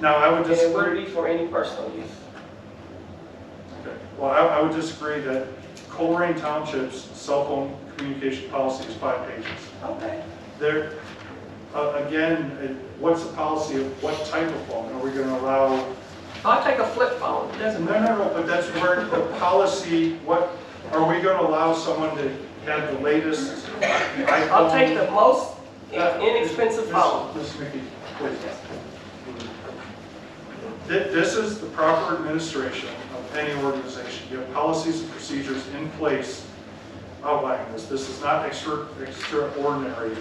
Now, I would And it wouldn't disagree, be for any personal use. Okay. well, I, I would disagree that Colerain Township's cell phone communication policy is five pages. Okay. There, uh, again, it- what's the policy of what type of phone? Are we going to allow I'll take a flip phone, it doesn't No, matter. no, no, but that's where the policy, what, are we gonna allow someone to have the latest iPhone? I'll take the most Uh, inexpensive Miss- phone. Miss McKee, please. Thi- This is the proper administration of any organization. You have policies and procedures in place outlining this. Oh, This is not extra extraordinary.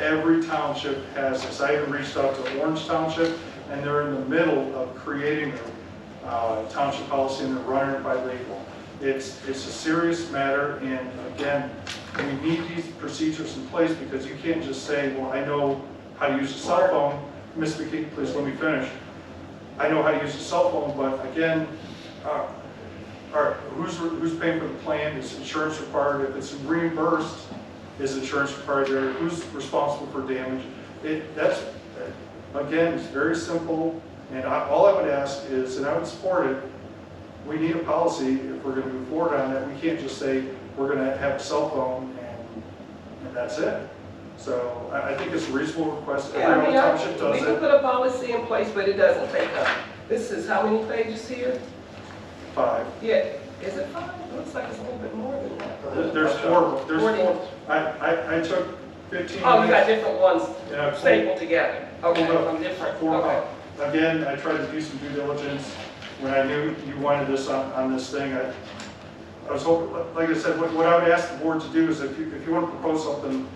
Every township has this. I even reached out to Orange Township, and they're in the middle of creating their uh, township policy, and they're running it by legal. It's, it's a serious matter, and again, we need these procedures in place because you can't just say, well, I know how to use a cell phone. Ms. McKee, please let me finish. I know how to use a cell phone, but again, uh, all right, who's, who's paying for the plan? Is insurance required? If it's reimbursed, is insurance required there? Who's responsible for damage? It, that's, again, it's very simple, and I, all I would ask is, and I would support it, we need a policy if we're gonna move forward on that. We can't just say, we're gonna have a cell phone and, and that's it. So I, I think it's a reasonable request. Every Yeah, I other mean, township I- we does can it. put a policy in place, but it doesn't take up. This is how many pages here? Five. Yeah, is it five? It looks like it's a little bit more than that. There- There's four, there's Forty. four. I, I, I took fifteen minutes. Oh, you got different ones and I pulled- stapled together. Okay, Hold up. from different, Four okay. up. Again, I tried to do some due diligence. When I knew you wanted this on, on this thing, I, I was hoping, like I said, what, what I would ask the board to do is if you, if you want to propose something,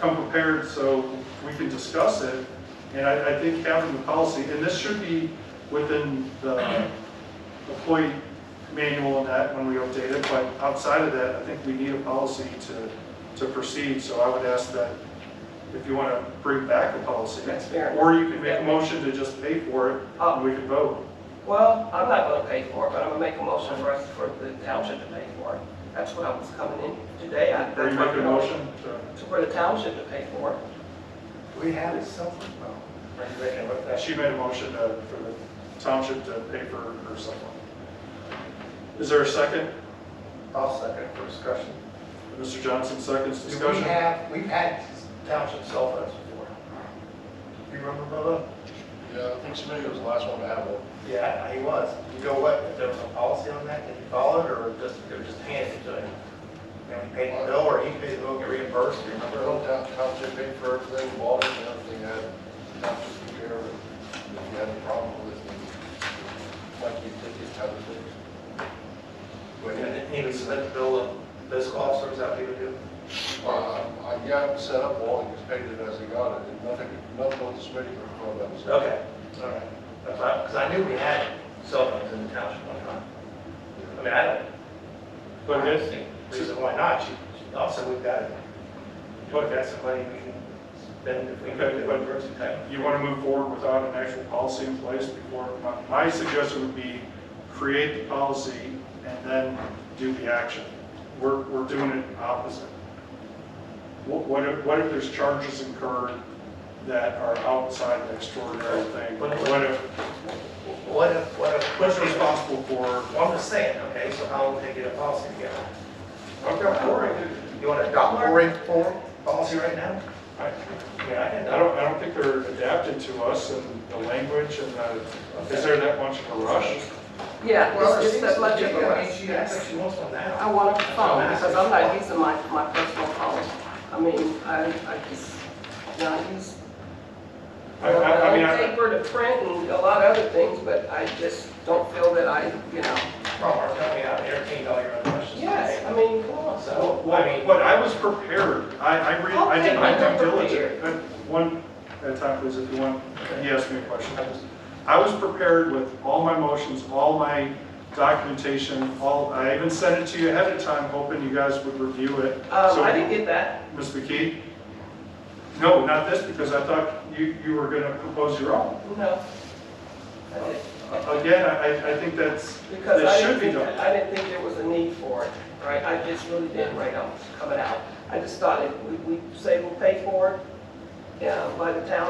come prepared so we can discuss it. And I, I think having the policy, and this should be within the employee manual and that when we update it, but outside of that, I think we need a policy to, to proceed. So I would ask that if you want to bring back a policy. That's fair. Oh. Or you can make a motion to just pay for it and we can vote. Well, I'm not gonna pay for it, but I'm gonna make a motion for us, for the township to pay for it. That's what I was coming in today. I- Or you make a motion to To- For the township to pay for it. We have it somewhere. well, She made a motion to- for the township to pay for her cell phone. Is there a second? I'll second for discussion. Mr. Johnson seconds Do We discussion. have, we've had township cell phones before. You remember, brother? Yeah, I think Smitty was the last one to have one. Yeah, he was. You know what, there was a policy on that, did he follow it, or just, they were just handed it to him? And he paid the bill, or he paid the bill, get reimbursed, you Remember, remember? old town, township paid for everything, water and everything, had township took care of it. If you had a problem with it, like you did these type of things. And then he would submit the bill of fiscal officers, that people do? Uh, I got it set up, all, just paid it as he got it, and nothing, nothing with the Smitty or all that was. Okay, all right. That's right, because I knew we had cell phones in the township one time. I mean, I don't, But I this, think the reason why not, you- you- also we've got, we've got some money we can spend if we go to one person type. you want to move forward without an actual policy in place before, my- my suggestion would be create the policy and then do the action. We're, we're doing it opposite. What, what if, what if there's charges incurred that are outside the extraordinary thing? What if, What if, what if, who's responsible for? Well, I'm just saying, okay, so how will they get a policy together? Okay, all right. You want to adopt a rate form policy right now? I Yeah, I can, I don't, I don't think they're adapted to us and the language and the, is there that much of a rush? Yeah, it's it's that much of a I mean, rush. she acts like she wants one I now. want a phone, because I'm not using my, my personal phone. I mean, I, I just, not use. I, I, I mean, own I. Paper to print and a lot of other things, but I just don't feel that I, you know. From our company, I entertained all your other questions. Yes, I mean, come on. So, Well, I mean, But I was prepared. I, I read, I did my Okay, due you were diligence. But One, at a time, please, if you want, you ask me a question. I was- I was prepared with all my motions, all my documentation, all, I even sent it to you ahead of time, hoping you guys would review it. Um, So- I didn't get that. Ms. McKee? No, not this, because I thought you, you were gonna propose your own. No. I didn't. Again, I, I think that's, Because I that should didn't be think, done. I didn't think there was a need for it, right? I just really didn't right on coming out. I just thought if we, we say we'll pay for it, yeah, by the town